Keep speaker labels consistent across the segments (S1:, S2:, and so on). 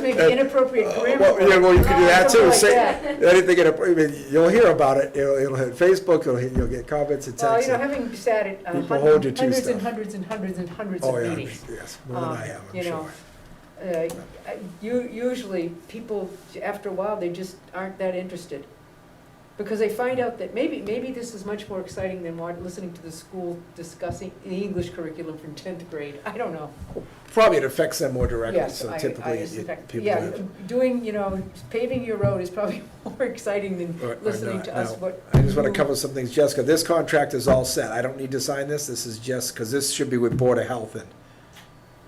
S1: maybe inappropriate grammar.
S2: Uh, Well, yeah, well, you could do that
S1: Something
S2: too,
S1: like
S2: say,
S1: that.
S2: anything, in a- I mean, you'll hear about it, it'll, it'll hit Facebook, it'll hit, you'll get comments and
S1: Well, you
S2: texts.
S1: know,
S2: and-
S1: having sat at uh,
S2: People hold you
S1: hundred-
S2: to
S1: hundreds and
S2: stuff.
S1: hundreds and hundreds and hundreds
S2: Oh,
S1: of
S2: yeah, I'm-
S1: meetings.
S2: yes, more than
S1: um,
S2: I have, I'm
S1: you know,
S2: sure.
S1: uh, I- u- Usually, people, after a while, they just aren't that interested. Because they find out that maybe, maybe this is much more exciting than wa- listening to the school discussing the English curriculum from tenth grade. I don't know.
S2: Probably it affects them more directly,
S1: Yes,
S2: so
S1: I- I
S2: typically, it-
S1: suspect-
S2: people.
S1: Yeah,
S2: have-
S1: doing, you know, paving your road is probably more exciting
S2: Or- or
S1: than uh, listening
S2: not,
S1: to us
S2: no.
S1: what.
S2: I just want to
S1: you-
S2: cover some things, Jessica, this contract is all set, I don't need to sign this, this is just, because this should be with Board of Health and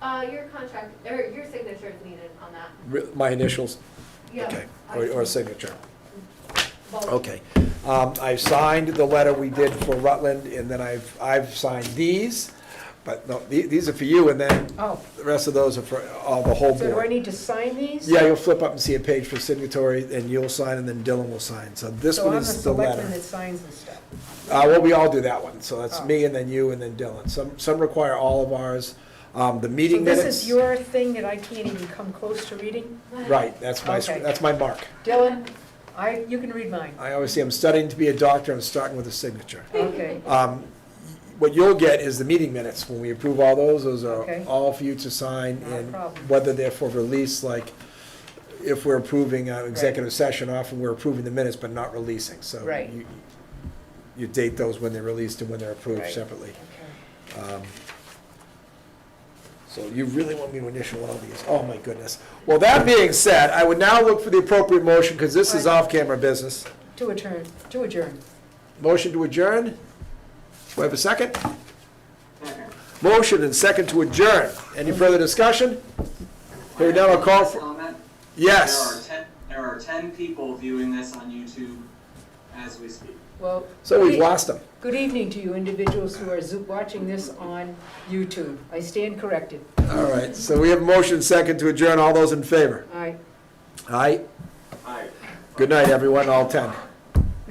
S3: Uh, your contract, or your signature is needed on that.
S2: re- my initials,
S3: Yeah.
S2: okay, or, or signature.
S3: Well,
S2: Okay. Um, I've signed the letter we did for Rutland, and then I've, I've signed these, but no, the- these are for you, and then
S1: Oh,
S2: the rest of those are for all the whole
S1: so do I
S2: board.
S1: need to sign these?
S2: Yeah, you'll flip up and see a page for signatory, and you'll sign, and then Dylan will sign. So this one is the
S1: So I'm the selectman
S2: letter.
S1: that signs this stuff.
S2: Uh, well, we all do that one, so that's
S1: Oh.
S2: me, and then you, and then Dylan. Some, some require all of ours. Um, the meeting
S1: So
S2: minutes.
S1: this is your thing that I can't even come close to reading?
S2: Right, that's my,
S1: Okay.
S2: that's my mark.
S1: Dylan, I, you can read mine.
S2: I always say I'm studying to be a doctor, I'm starting with a signature.
S1: Okay,
S2: Um, What you'll get is the meeting minutes. When we approve all those, those are
S1: Okay.
S2: all for you to sign.
S1: Not a
S2: and
S1: problem.
S2: Whether they're for release, like if we're approving uh, executive session, often we're approving the minutes but not releasing. So
S1: Right.
S2: you- you date those when they're released and when they're approved
S1: Right.
S2: separately.
S1: okay.
S2: Um, So you really want me to initial all these? Oh, my goodness. Well, that being said, I would now look for the appropriate motion because this is
S1: Right.
S2: off-camera business.
S1: To adjourn, to adjourn.
S2: Motion to adjourn? Do I have a second? Motion and second to adjourn. Any further discussion? Hearing none, I'll call for-
S4: Comment?
S2: Yes.
S4: There are ten, there are ten people viewing this on YouTube as we speak.
S1: Well.
S2: So we've
S1: good e-
S2: lost them.
S1: Good evening to you individuals who are zo- watching this on YouTube. I stand corrected.
S2: All right, so we have motion second to adjourn. All those in favor?
S1: All right.
S2: Aye.
S4: Aye.
S2: Good night, everyone, all 10.